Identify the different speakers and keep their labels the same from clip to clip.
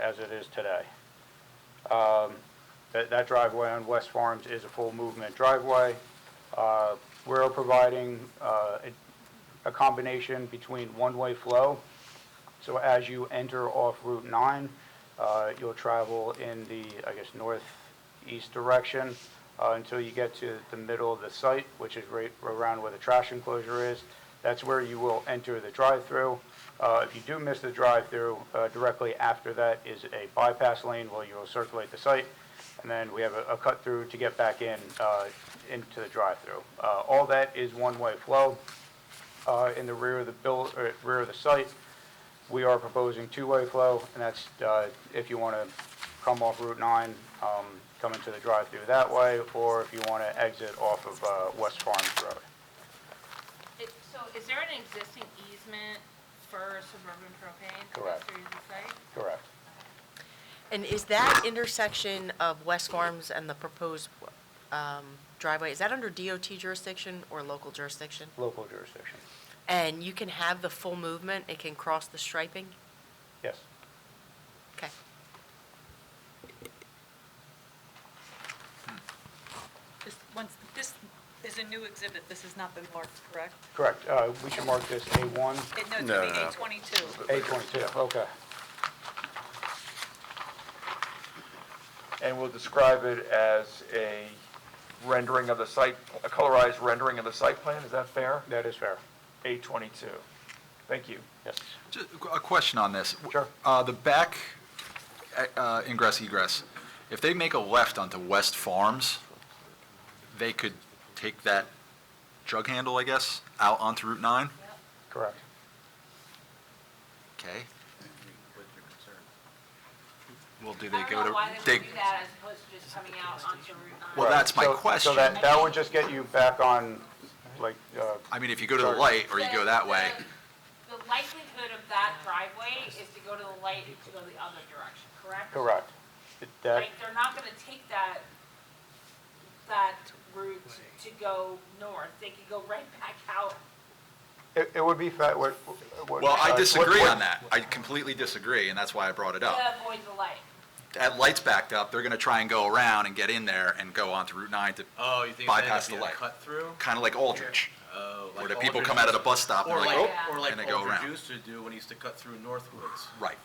Speaker 1: as it is today. Um, That that driveway on West Farms is a full movement driveway. Uh, We're providing uh, a a combination between one-way flow. So as you enter off Route 9, uh, you'll travel in the, I guess, northeast direction uh, until you get to the middle of the site, which is right around where the trash enclosure is. That's where you will enter the drive-through. Uh, If you do miss the drive-through, uh, directly after that is a bypass lane where you will circulate the site. And then we have a a cut-through to get back in, uh, into the drive-through. Uh, All that is one-way flow uh, in the rear of the buil, or rear of the site. We are proposing two-way flow, and that's, uh, if you want to come off Route 9, um, come into the drive-through that way, or if you want to exit off of, uh, West Farms Road.
Speaker 2: It- So is there an existing easement for Suburban Propane? to go
Speaker 1: Correct.
Speaker 2: Through the site?
Speaker 1: Correct.
Speaker 3: And is that intersection of West Farms and the proposed um, driveway, is that under DOT jurisdiction or local jurisdiction?
Speaker 1: Local jurisdiction.
Speaker 3: And you can have the full movement, it can cross the striping?
Speaker 1: Yes.
Speaker 3: Okay.
Speaker 4: This, once, this is a new exhibit, this has not been marked, correct?
Speaker 1: Correct. Uh, We should mark this A1,
Speaker 4: It- No, it's
Speaker 5: No,
Speaker 4: going
Speaker 5: no, no.
Speaker 4: A22.
Speaker 1: A22. Okay.
Speaker 6: and we'll describe it as a rendering of the site, a colorized rendering of the site plan, is that fair?
Speaker 1: That is fair.
Speaker 6: A twenty-two. Thank you.
Speaker 1: Yes.
Speaker 5: Ju- A question on this.
Speaker 6: Sure.
Speaker 5: Uh, The back uh, ingress egress, if they make a left onto West Farms, they could take that jug handle, I guess, out onto Route 9?
Speaker 1: Correct.
Speaker 5: Okay. Well, do they go to? they-
Speaker 2: that as opposed to just coming out onto Route 9.
Speaker 5: Well, that's my
Speaker 1: So- So
Speaker 5: question.
Speaker 1: that, that would just get you back on, like, uh,
Speaker 5: I mean, if you go to the light or you go that way,
Speaker 2: The likelihood of that driveway is to go to the light and to go the other direction, correct?
Speaker 1: correct. That,
Speaker 2: Like, they're not gonna take that, that route to go north. They could go right back out.
Speaker 1: it it would be, fa- what, what...
Speaker 5: well,
Speaker 1: uh,
Speaker 5: I
Speaker 1: what-
Speaker 5: disagree
Speaker 1: what-
Speaker 5: on that. I completely disagree, and that's why I brought it up.
Speaker 2: To avoid the light.
Speaker 5: that light's backed up, they're gonna try and go around and get in there and go onto Route 9 to,
Speaker 7: Oh, you think
Speaker 5: Bypass
Speaker 7: it's
Speaker 5: the
Speaker 7: gonna be a
Speaker 5: light.
Speaker 7: cut through?
Speaker 5: kind of like Aldrich.
Speaker 7: Oh,
Speaker 5: Where
Speaker 7: like
Speaker 5: the people
Speaker 7: Aldridge
Speaker 5: come out of the
Speaker 7: used-
Speaker 5: bus stop and
Speaker 7: Or
Speaker 5: they're like,
Speaker 7: like,
Speaker 2: Yeah.
Speaker 5: oh,
Speaker 7: or
Speaker 5: and
Speaker 7: like
Speaker 5: they go
Speaker 7: Aldridge
Speaker 5: around.
Speaker 7: used to do when he used to cut through Northwoods.
Speaker 5: right.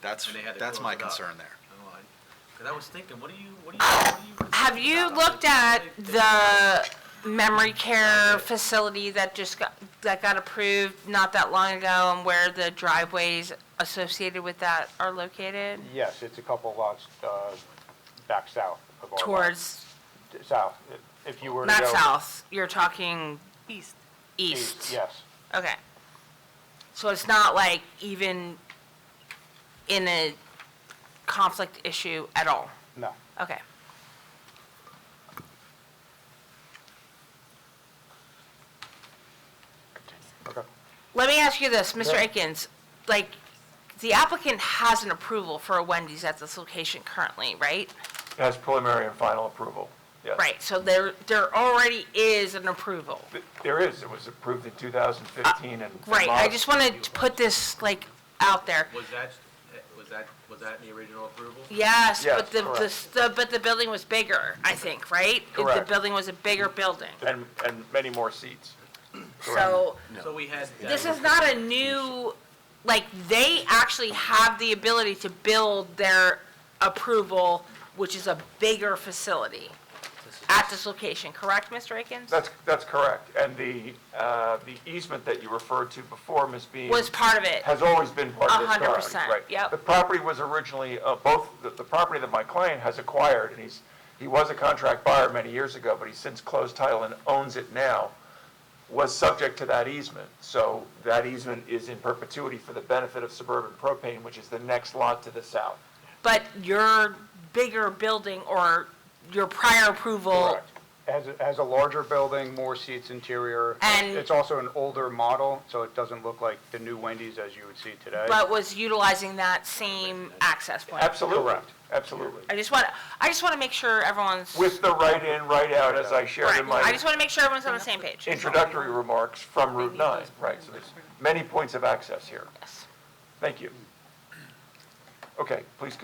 Speaker 5: That's,
Speaker 7: And they had to
Speaker 5: that's
Speaker 7: close
Speaker 5: my
Speaker 7: it up.
Speaker 5: concern there.
Speaker 7: Oh, I- Cause I was thinking, what do you, what do you, what do you?
Speaker 8: Have you looked at the memory care facility that just got, that got approved not that long ago and where the driveways associated with that are located?
Speaker 1: Yes, it's a couple lots uh, back south of our lot.
Speaker 8: Towards,
Speaker 1: South, If- if you were to go...
Speaker 8: not south, you're talking
Speaker 4: East.
Speaker 8: east?
Speaker 1: Yes,
Speaker 8: Okay. So it's not like even in a conflict issue at all?
Speaker 1: no.
Speaker 8: Okay.
Speaker 1: Okay.
Speaker 8: Let me ask you this, Mr.
Speaker 1: Yeah.
Speaker 8: Akins, like, the applicant has an approval for a Wendy's at this location currently, right?
Speaker 6: As preliminary and final approval, yes.
Speaker 8: Right, so there, there already is an approval.
Speaker 6: Th- There is, it was approved in two thousand fifteen and.
Speaker 8: Right, I
Speaker 6: mod-
Speaker 8: just wanted to put this, like, out there.
Speaker 7: Was that, eh, was that, was that in the original approval?
Speaker 8: Yes, but
Speaker 6: Yes,
Speaker 8: the, the,
Speaker 6: correct.
Speaker 8: the- but the building was bigger, I think, right? If
Speaker 6: Correct.
Speaker 8: The building was a bigger building.
Speaker 6: And, and many more seats.
Speaker 8: So,
Speaker 7: So we had. that
Speaker 8: this
Speaker 7: was-
Speaker 8: is not a new, like, they actually have the ability to build their approval, which is a bigger facility at this location, correct, Mr. Akins?
Speaker 6: That's, that's correct. And the, uh, the easement that you referred to before, Ms. Beam.
Speaker 8: Was part of it.
Speaker 6: has always been part of
Speaker 8: A
Speaker 6: this
Speaker 8: hundred
Speaker 6: property.
Speaker 8: percent,
Speaker 6: right.
Speaker 8: yep.
Speaker 6: The property was originally, uh, both, the, the property that my client has acquired, and he's, he was a contract buyer many years ago, but he's since closed title and owns it now, was subject to that easement. So that easement is in perpetuity for the benefit of suburban propane, which is the next lot to the south.
Speaker 8: But your bigger building or your prior approval,
Speaker 1: Correct. Has, a- has a larger building, more seats interior.
Speaker 8: And-
Speaker 1: It's also an older model, so it doesn't look like the new Wendy's as you would see today.
Speaker 8: but was utilizing that same access point?
Speaker 6: Absolutely. Absolutely.
Speaker 8: I just want, I just want to make sure everyone's,
Speaker 6: With the right in, right out, as I shared
Speaker 8: Right,
Speaker 6: in my.
Speaker 8: I just want to make sure everyone's on the same page.
Speaker 6: introductory remarks from Route 9, right, so there's many points of access here.
Speaker 8: Yes.
Speaker 6: Thank you. Okay, please